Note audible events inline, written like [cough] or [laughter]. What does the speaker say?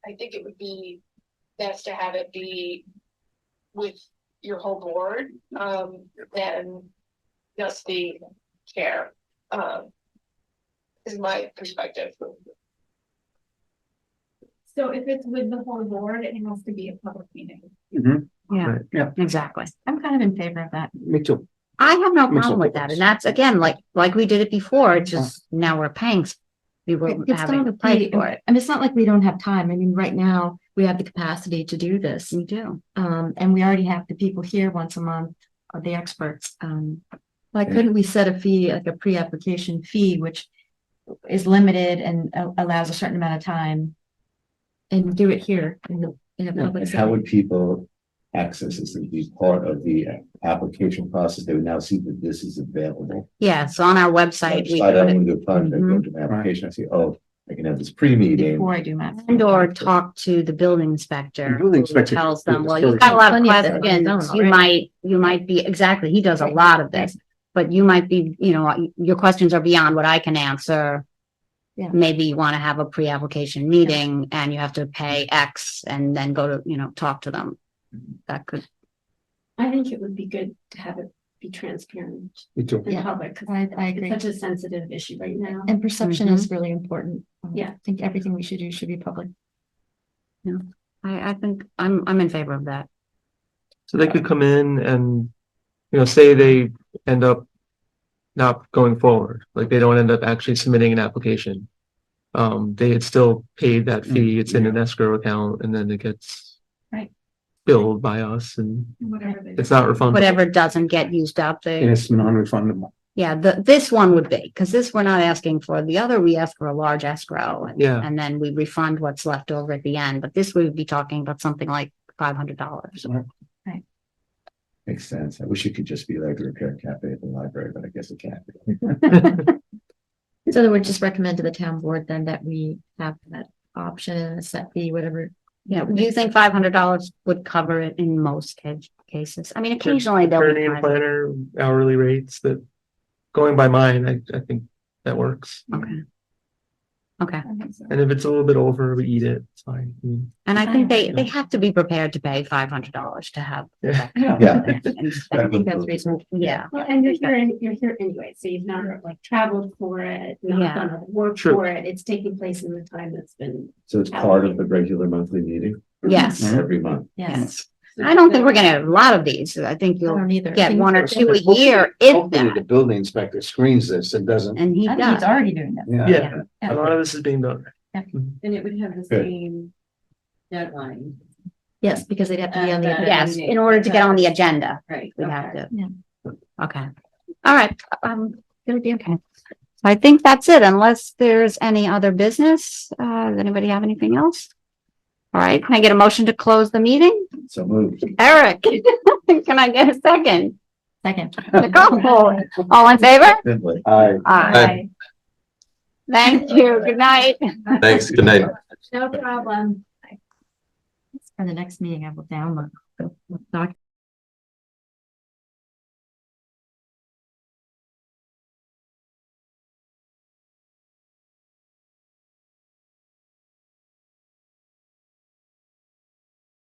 I think it would be best to have it be with your whole board, um, than just the chair, um. Is my perspective. So if it's with the whole board, it has to be a public meeting. Mhm. Yeah, Right. Yeah, exactly. I'm kind of in favor of that. me too. I have no Makes a problem with difference. that. And that's again, like, like we did it before, it's just now we're paying. s- We were It- It's having to not a pay plea, for it. I mean, it's not like we don't have time. I mean, right now, we have the capacity to do this. We do. Um, and we already have the people here once a month, or the experts. Um, why Yeah. couldn't we set a fee, like a pre-application fee, which is limited and a- allows a certain amount of time? And do it here in the, in a public And how setting. would people access this? It would be part of the application process. They would now see that this is available. Yeah, so on our website, we Slide put out it, into a project, go to Mm-hmm. my application, I see, oh, I can have this pre-meeting. Before I do my. and or talk to the building inspector. The building who inspector Tells did them, this well, you've very got a lot of Plenty of them. questions, Done you already. might, you might be, exactly, he does a Right. lot of this. But you might be, you know, your questions are beyond what I can answer. Yeah. Maybe you want to have a pre-application meeting and you have to pay X and then go to, you know, talk to them. That could I think it would be good to have it be transparent Me too. Yeah. and public, because I, I agree. such a sensitive issue right now. And perception Mm-hmm. is really important. Um, Yeah. I think everything we should do should be public. I, I think I'm, I'm in favor of that. So they could come in and, you know, say they end up not going forward, like they don't end up actually submitting an application. Um, they had still paid that fee, it's in an escrow account, and then it gets Right. billed by us and Whatever they. it's not refundable. Whatever doesn't get used up, It they, is non-refundable. yeah, the, this one would be, because this we're not asking for. The other, we ask for a large escrow. and- Yeah. And then we refund what's left over at the end, but this we would be talking about something like five hundred dollars. Makes sense. I wish it could just be like the repair cafe at the library, but I guess it can't. be. So then we just recommend to the town board then that we have that option, a set fee, whatever. Yeah, do you think five hundred dollars would cover it in most ca- cases? I mean, occasionally they'll. Attorney and be- planner hourly rates that, going by mine, I, I think that works. Okay. Okay, I think so. And if it's a little bit over, we eat it, it's fine. I mean, and I think they, they have to be prepared to pay five hundred dollars to have. Yeah. [laughs] Yeah. And- I think that's reasonable. Yeah, Well, and you're here, an- you're here anyway, so you've not like traveled for it, Yeah. not done a work True. for it. It's taking place in the time that's been. So it's part of the regular monthly meeting yes. Mm-hmm. every month. Yes. Yes. I don't think we're gonna have a lot of these. I think I you'll don't either. I get think- one or two a Hopefully- year, if Hopefully the that, building inspector screens this and doesn't. and he I think he's does. already doing that. Yeah, Yeah. a lot of this is being done. And it would have the Good. same deadline, Yes, because they'd have to be on the. Uh, agenda. Yes, in order to get on the agenda, right? we have to. Yeah. Okay, all right, um, it'll be okay. I think that's it, unless there's any other business. Uh, does anybody have anything else? All right, can I get a motion to close the meeting? So move. Eric, [laughs] can I get a second? Second. Nicole, all in favor? I. Aye. Thank you, good night. Thanks. Good night. No problem. For the next meeting, I will download. the document.